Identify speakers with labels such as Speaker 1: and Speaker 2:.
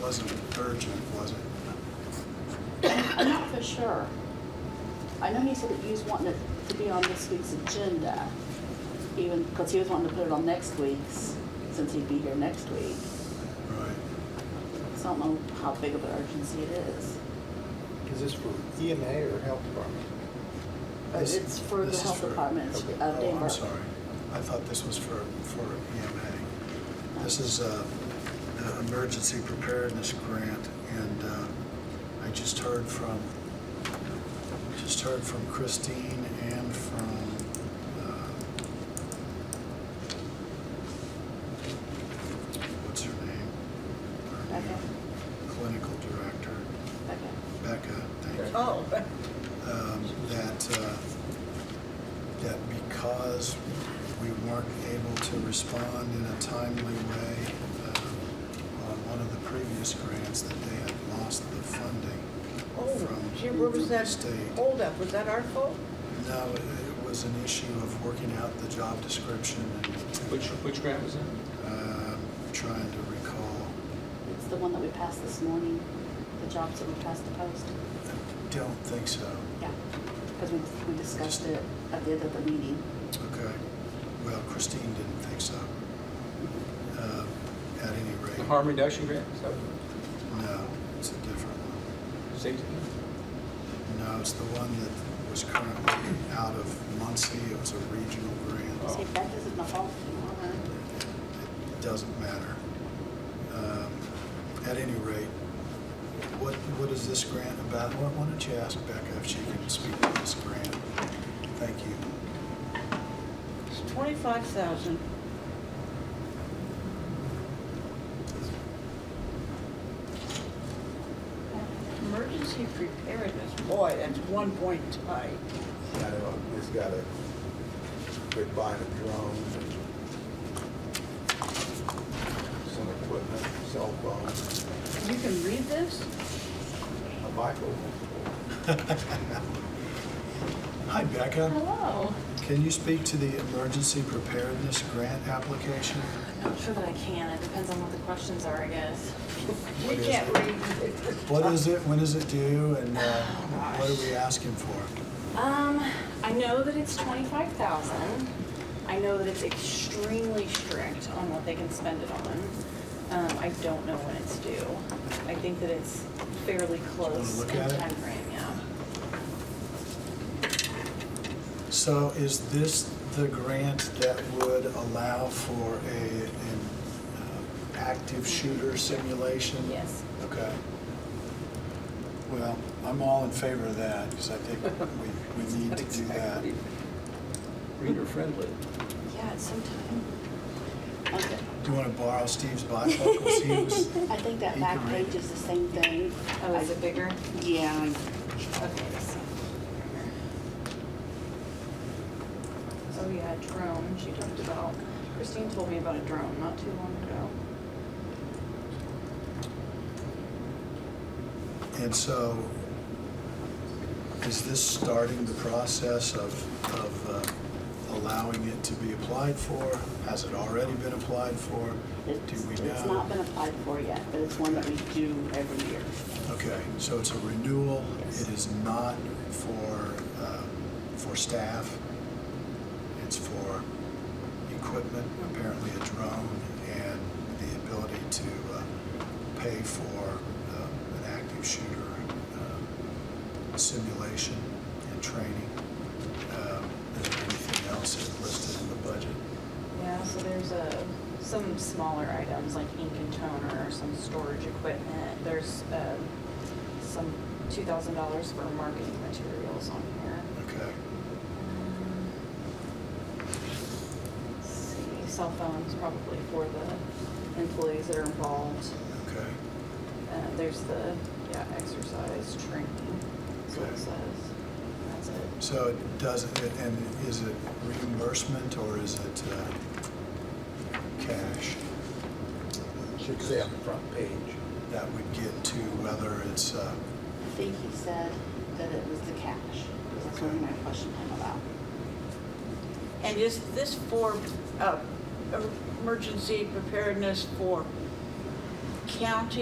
Speaker 1: wasn't urgent, was it?
Speaker 2: I'm not for sure. I know he said that he was wanting it to be on this week's agenda, even, because he was wanting to put it on next week's, since he'd be here next week.
Speaker 1: Right.
Speaker 2: So I don't know how big of an urgency it is.
Speaker 3: Is this for
Speaker 1: E
Speaker 3: EMA or health department?
Speaker 2: But
Speaker 1: This-
Speaker 2: Uh, it's for the
Speaker 1: this is
Speaker 2: health
Speaker 1: for-
Speaker 2: department
Speaker 3: okay.
Speaker 2: of
Speaker 1: Oh,
Speaker 2: Denver.
Speaker 1: I'm sorry. I thought this was for, for EMA. This is uh, an emergency preparedness grant, and uh, I just heard from, just heard from Christine and from, uh, what's her name? Her
Speaker 2: Becca.
Speaker 1: new Clinical director,
Speaker 2: Okay.
Speaker 1: Becca, thank you
Speaker 4: Oh,
Speaker 1: um, that, uh, that because we weren't able to respond in a timely way uh, on one of the previous grants, that they had lost the funding
Speaker 4: oh, gee,
Speaker 1: from
Speaker 4: where
Speaker 1: from
Speaker 4: was
Speaker 1: the
Speaker 4: that Oh.
Speaker 1: state.
Speaker 4: holdup? Was that our fault?
Speaker 1: No, it- it was an issue of working out the job description and
Speaker 5: Which, which grant was that?
Speaker 1: um, trying to recall.
Speaker 2: It's the one that we passed this morning, the jobs that we passed to post.
Speaker 1: I don't think so.
Speaker 2: Yeah, because we, we discussed it at the end of the meeting.
Speaker 1: Okay. Well, Christine didn't think so. Uh, At any rate.
Speaker 5: The harm reduction grant, is that
Speaker 1: No, it's a different one.
Speaker 5: safety?
Speaker 1: No, it's the one that was currently out of Muncie. It was a regional grant.
Speaker 2: See, that isn't my fault, you know,
Speaker 1: It-
Speaker 2: right?
Speaker 1: It doesn't matter. Um, At any rate, what, what is this grant about? Why why don't you ask Becca if she can speak to this grant? Thank you.
Speaker 4: It's twenty-five thousand. Emergency preparedness, boy, that's one point tight.
Speaker 6: I know, it's got a, they're buying a drone, and some equipment, cell phones,
Speaker 4: You can read this?
Speaker 6: a microphone.
Speaker 1: Hi, Becca.
Speaker 7: Hello.
Speaker 1: Can you speak to the emergency preparedness grant application?
Speaker 7: I'm not sure that I can. It depends on what the questions are, I guess.
Speaker 4: We
Speaker 1: What is
Speaker 4: can't
Speaker 1: it?
Speaker 4: read.
Speaker 1: What is it? When is it due? And uh, what are we asking for?
Speaker 7: Um, I know that it's twenty-five thousand. I know that it's extremely strict on what they can spend it on. Um, I don't know when it's due. I think that it's fairly
Speaker 1: wanna
Speaker 7: close
Speaker 1: look
Speaker 7: in
Speaker 1: at it?
Speaker 7: timeframe, yeah.
Speaker 1: So is this the grant that would allow for a, an uh, active shooter simulation?
Speaker 7: Yes.
Speaker 1: Okay. Well, I'm all in favor of that, because I think we, we need to do that.
Speaker 5: Reader friendly.
Speaker 7: Yeah, it's sometime.
Speaker 2: Okay.
Speaker 1: Do you want to borrow Steve's bifocals? He was,
Speaker 2: I think that
Speaker 1: You
Speaker 2: back
Speaker 1: can read
Speaker 2: page is the same thing.
Speaker 7: Oh, is it bigger?
Speaker 2: Yeah,
Speaker 7: Okay, let's see. Oh yeah, drone, she talked about, Christine told me about a drone not too long ago.
Speaker 1: and so is this starting the process of, of uh, allowing it to be applied for? Has it already been applied for? Do
Speaker 2: it's,
Speaker 1: we know?
Speaker 2: it's not been applied for yet, but it's one that we do every year.
Speaker 1: Okay, so it's a renewal,
Speaker 2: Yes.
Speaker 1: it is not for, uh, for staff, it's for equipment, apparently a drone, and the ability to uh, pay for um, an active shooter um, simulation and training. Um, Is there anything else that's listed in the budget?
Speaker 7: Yeah, so there's a, some smaller items like ink and toner, some storage equipment. There's um, some two thousand dollars for marketing materials on here.
Speaker 1: Okay,
Speaker 7: Let's See, cell phones probably for the employees that are involved.
Speaker 1: okay.
Speaker 7: Uh, There's the, yeah, exercise training, is what
Speaker 1: Okay.
Speaker 7: it says. That's it.
Speaker 1: So it doesn't, and is it reimbursement or is it uh, cash?
Speaker 6: Should say um, on the front page.
Speaker 1: That would get to whether it's, uh,
Speaker 2: I think he said that it was the cash, because that's what I questioned him about.
Speaker 4: And is this for, uh, emergency preparedness for county